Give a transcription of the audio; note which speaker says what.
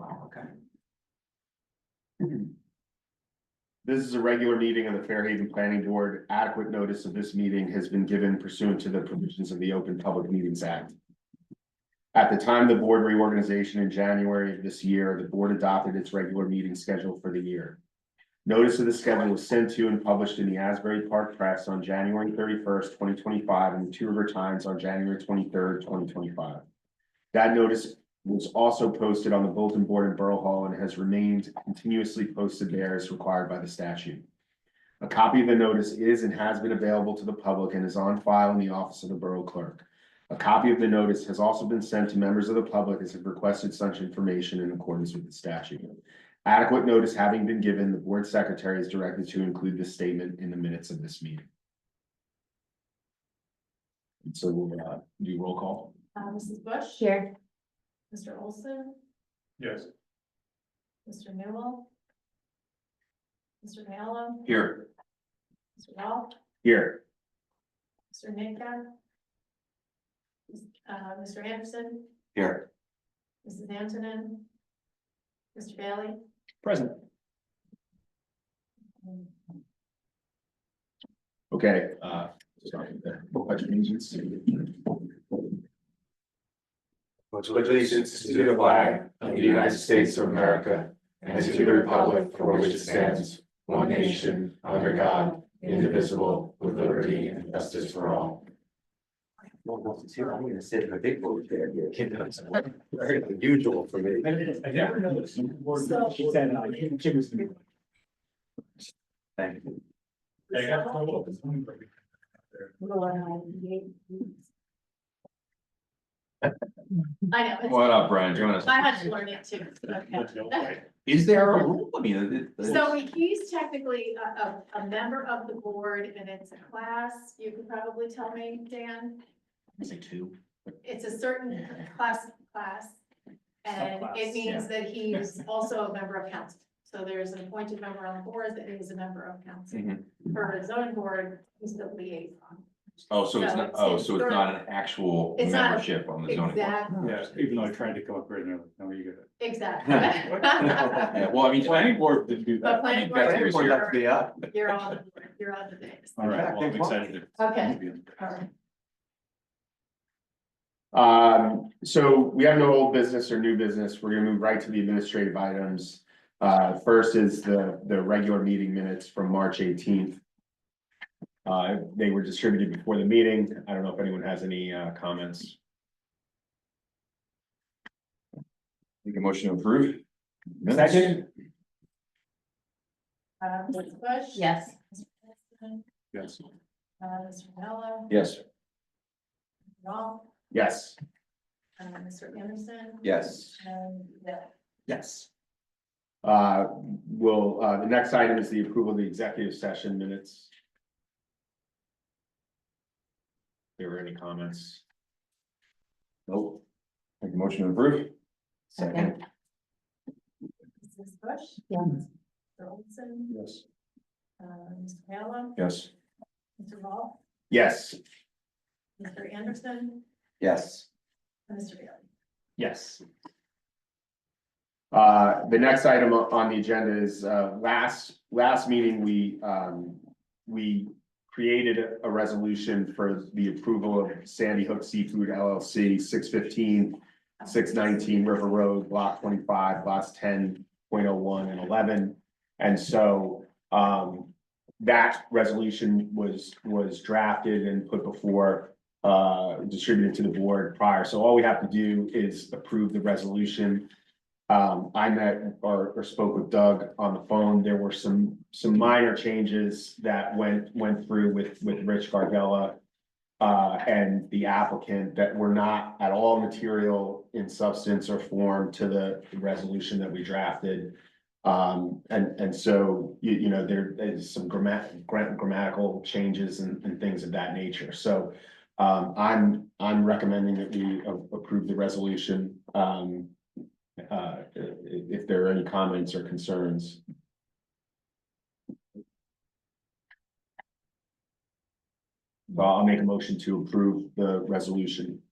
Speaker 1: Okay.
Speaker 2: This is a regular meeting of the Fairhaven Planning Board. Adequate notice of this meeting has been given pursuant to the provisions of the Open Public Meetings Act. At the time of the board reorganization in January of this year, the board adopted its regular meeting schedule for the year. Notice of the schedule was sent to and published in the Asbury Park Press on January thirty-first, twenty twenty-five, and the Two River Times on January twenty-third, twenty twenty-five. That notice was also posted on the bulletin board in Borough Hall and has remained continuously posted there as required by the statute. A copy of the notice is and has been available to the public and is on file in the office of the Borough Clerk. A copy of the notice has also been sent to members of the public as have requested such information in accordance with the statute. Adequate notice having been given, the board secretary is directed to include this statement in the minutes of this meeting. And so we'll uh, do roll call.
Speaker 3: Uh, Mrs. Bush?
Speaker 4: Here.
Speaker 3: Mr. Olson?
Speaker 5: Yes.
Speaker 3: Mr. Newell? Mr. Mallow?
Speaker 2: Here.
Speaker 3: Mr. Wall?
Speaker 2: Here.
Speaker 3: Mr. Minka? Uh, Mr. Anderson?
Speaker 2: Here.
Speaker 3: Mrs. Antonin? Mr. Bailey?
Speaker 5: Present.
Speaker 2: Okay, uh, sorry, the pledge of allegiance.
Speaker 6: Pledge allegiance to the flag of the United States of America and to the republic for which it stands, one nation, under God, indivisible, with liberty and justice for all.
Speaker 1: I'm gonna sit in a big boat there.
Speaker 6: Very unusual for me.
Speaker 5: I never noticed. She said, uh, Jim was.
Speaker 1: Thank you.
Speaker 5: I got a little bit hungry.
Speaker 3: I know, it's-
Speaker 7: What up, Brian? Join us.
Speaker 3: I had to learn it too, okay.
Speaker 7: Is there a rule? I mean, it- it's-
Speaker 3: So he's technically a, a, a member of the board and it's a class, you could probably tell me, Dan.
Speaker 7: It's like two.
Speaker 3: it's a certain class, class. And it
Speaker 5: Subclass,
Speaker 3: means that he's also a member of council. So there's an appointed member on the board that is a member of council.
Speaker 7: Mhm.
Speaker 3: For his own board, he's the liaison.
Speaker 7: Oh, so it's not, oh, so it's not an actual
Speaker 3: It's not-
Speaker 7: membership on the zoning board.
Speaker 3: Exactly,
Speaker 5: Yeah, even though I tried to come up with another, no, you
Speaker 7: Yeah,
Speaker 3: exactly.
Speaker 7: well, I mean.
Speaker 5: Planning board did do
Speaker 3: But
Speaker 5: that.
Speaker 3: planning
Speaker 7: Planning
Speaker 3: board,
Speaker 7: board,
Speaker 3: you're-
Speaker 6: Be up.
Speaker 3: you're on, the board, you're on the base.
Speaker 5: All right, well, I'm excited. to-
Speaker 3: Okay. All right.
Speaker 2: Um, so we have no old business or new business. We're gonna move right to the administrative items. Uh, first is the, the regular meeting minutes from March eighteenth. Uh, they were distributed before the meeting. I don't know if anyone has any, uh, comments.
Speaker 7: Make a motion to approve.
Speaker 5: Second?
Speaker 3: Uh, Mrs. Bush?
Speaker 4: Yes.
Speaker 3: Mr. Anderson,
Speaker 5: Yes.
Speaker 3: Uh, Mr. Mello?
Speaker 7: Yes.
Speaker 3: Wrong.
Speaker 2: Yes.
Speaker 3: Uh, Mr. Anderson?
Speaker 7: Yes.
Speaker 3: And, yeah.
Speaker 2: Yes. Uh, will, uh, the next item is the approval of the executive session minutes. There were any comments?
Speaker 7: Nope. Make a motion to approve.
Speaker 4: Second.
Speaker 3: Mrs. Bush?
Speaker 4: Yes.
Speaker 3: Mr. Olson?
Speaker 7: Yes.
Speaker 3: Uh, Mr. Allen,
Speaker 7: Yes.
Speaker 3: Mr. Wall,
Speaker 2: Yes.
Speaker 3: Mr. Anderson,
Speaker 7: Yes.
Speaker 3: and Mr. Bailey.
Speaker 2: Yes. Uh, the next item o- on the agenda is, uh, last, last meeting, we, um, we created a- a resolution for the approval of Sandy Hook Seafood LLC, 615, 619 River Road, block twenty-five, lots ten point oh one and eleven. And so, um, that resolution was, was drafted and put before uh, distributed to the board prior. So all we have to do is approve the resolution. Um, I met or, or spoke with Doug on the phone. There were some, some minor changes that went, went through with, with Rich Gardella. Uh, and the applicant that were not at all material in substance or form to the resolution that we drafted. Um, and, and so, you, you know, there is some grammat, gra- grammatical changes and, and things of that nature. So um, I'm, I'm recommending that we a- approve the resolution, um. Uh, i- i- if there are any comments or concerns. Well, I'll make a motion to approve the resolution.